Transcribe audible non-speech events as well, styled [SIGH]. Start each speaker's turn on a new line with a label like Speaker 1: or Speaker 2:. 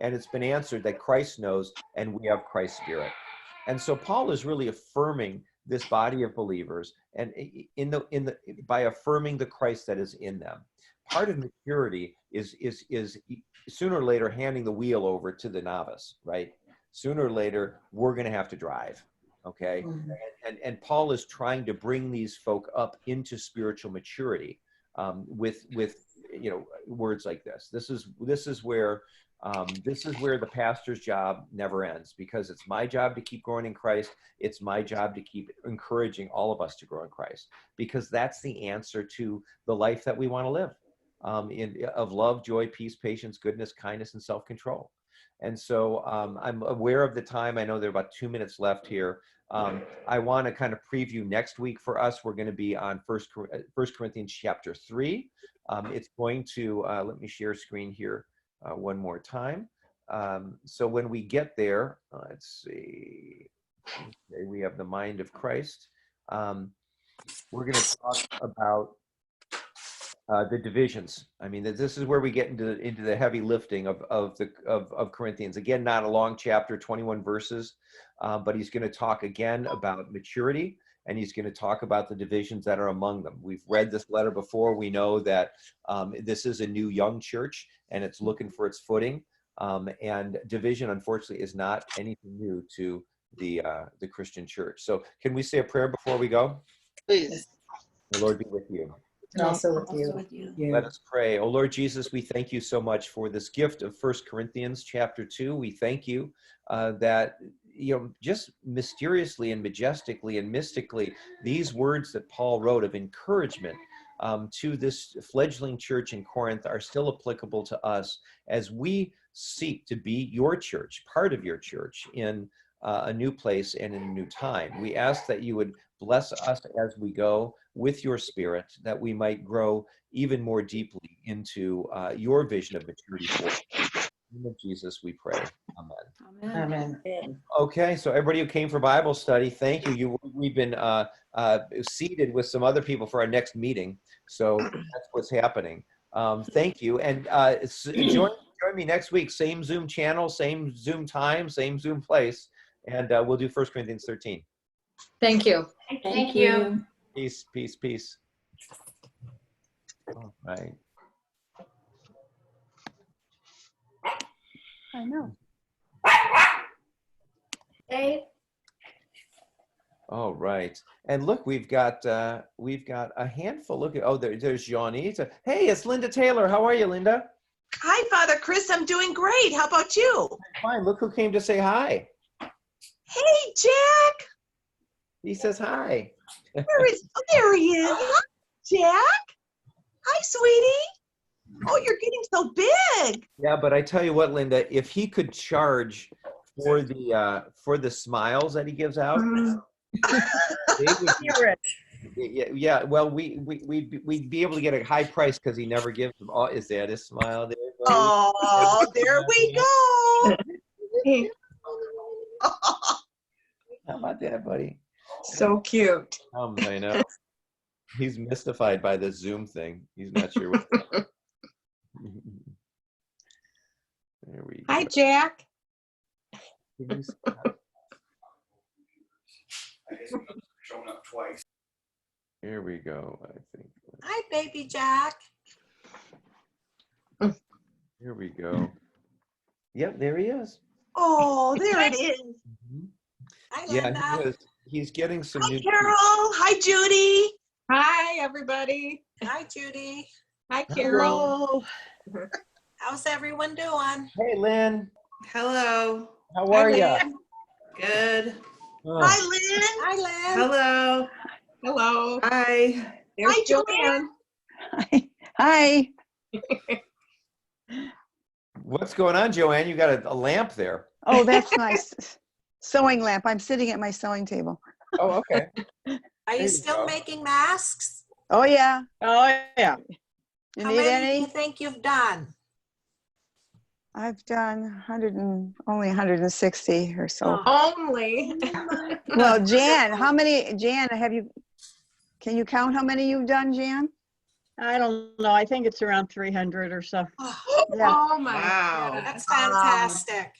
Speaker 1: and it's been answered that Christ knows and we have Christ's spirit. And so Paul is really affirming this body of believers and in the in the by affirming the Christ that is in them. Part of maturity is is is e, sooner or later handing the wheel over to the novice, right? Sooner or later we're going to have to drive. Okay? Mm-hmm. And, and Paul is trying to bring these folk up into spiritual maturity um, with with you know words like this. This is this is where um, this is where the pastor's job never ends because it's my job to keep growing in Christ. It's my job to keep encouraging all of us to grow in Christ because that's the answer to the life that we want to live um, in, of love, joy, peace, patience, goodness, kindness, and self control. And so um, I'm aware of the time. I know there are about two minutes left here. Um, I want to kind of preview next week for us. We're going to be on First, uh, First Corinthians chapter three. Um, it's going to uh, let me share screen here. Uh, one more time. Um, so when we get there, uh, let's see, okay, we have the mind of Christ. Um, we're going to talk about uh, the divisions. I mean, this is where we get into into the heavy lifting of of the of, of Corinthians. Again, not a long chapter, 21 verses, Uh, but he's going to talk again about maturity and he's going to talk about the divisions that are among them. We've read this letter before. We know that um, this is a new young church and it's looking for its footing. Um, and division, unfortunately, is not anything new to the uh, the Christian church. So, can we say a prayer before we go?
Speaker 2: Please.
Speaker 1: The Lord be with you.
Speaker 3: And also with you. Also with you.
Speaker 1: Yeah. Let us pray. Oh Lord Jesus, we thank you so much for this gift of First Corinthians chapter 2. We thank you uh, that you know just mysteriously and majestically and mystically these words that paul wrote of encouragement um, to this fledgling church in corinth are still applicable to us as we seek to be your church part of your church in uh, a new place and in a new time we ask that you would bless us as we go with your spirit that we might grow even more deeply into uh, your vision of maturity for us of Jesus, we pray. Amen.
Speaker 2: Amen. Amen.
Speaker 1: Okay, so everybody who came for Bible study, thank you. You, we've been uh, uh, seated with some other people for our next meeting, so that's what's happening. Um, thank you, and uh, join join me next week. Same Zoom channel, same Zoom time, same Zoom place, and uh, we'll do First Corinthians thirteen.
Speaker 2: Thank you.
Speaker 3: Thank, thank you. you.
Speaker 1: Peace, peace, peace. All right.
Speaker 3: I know.
Speaker 4: Hey.
Speaker 1: All right, and look, we've got uh, we've got a handful. Look at oh, there, there's Johnny. hey, it's Linda Taylor. How are you, Linda?
Speaker 5: Hi, Father Chris. I'm doing great. How about you?
Speaker 1: Fine. Look who came to say hi.
Speaker 5: Hey, Jack.
Speaker 1: He says hi.
Speaker 5: Where is? Oh, there he is. Jack. Hi, sweetie. Oh, you're getting so big.
Speaker 1: Yeah, but I tell you what, Linda, if he could charge for the uh, for the smiles that he gives
Speaker 2: [LAUGHS]
Speaker 1: out, mm-hmm. be, yeah, yeah, well, we we we'd, we'd be able to get a high price because he never gives them. all. Is that a smile? There
Speaker 5: oh, there we go.
Speaker 1: How about that, buddy?
Speaker 2: So cute.
Speaker 1: Um, I know. He's mystified by this Zoom thing. He's not sure what.
Speaker 2: there we Hi, go. Jack.
Speaker 1: Shown up twice. Here we go. I think.
Speaker 4: Hi, baby Jack.
Speaker 1: Here we go. Yep, there he is.
Speaker 5: Oh, there it is. Mm-hmm.
Speaker 4: Hi, Linda.
Speaker 1: Yeah, he is. He's getting some.
Speaker 5: Hi, Carol. Hi, Judy.
Speaker 2: Hi, everybody.
Speaker 4: Hi, Judy.
Speaker 2: Hi, Carol.
Speaker 4: Hello. How's everyone doing?
Speaker 1: Hey, Lynn.
Speaker 6: Hello.
Speaker 1: How are you?
Speaker 6: Good.
Speaker 5: Oh. Hi, Lynn.
Speaker 4: Hi, Lynn.
Speaker 6: Hello.
Speaker 2: Hello.
Speaker 6: Hi.
Speaker 5: There's Hi, Joanne.
Speaker 3: Hi. Hi.
Speaker 1: What's going on, Joanne? You got a, a lamp there.
Speaker 3: Oh, that's my sewing lamp. I'm sitting at my sewing table.
Speaker 1: Oh, okay.
Speaker 4: Are there you still go. making masks?
Speaker 3: Oh, yeah.
Speaker 2: Oh, yeah.
Speaker 4: You How many, any? do you think you've done?
Speaker 3: I've done 100 and only 160 or so.
Speaker 2: Oh, only.
Speaker 3: well,
Speaker 4: [LAUGHS]
Speaker 3: Jan, how many? Jan, have you? Can you count how many you've done, Jan?
Speaker 7: I don't know. I think it's around 300 or so.
Speaker 4: Oh,
Speaker 3: Yeah.
Speaker 2: Oh, my
Speaker 6: Wow.
Speaker 2: God.
Speaker 4: That's fantastic.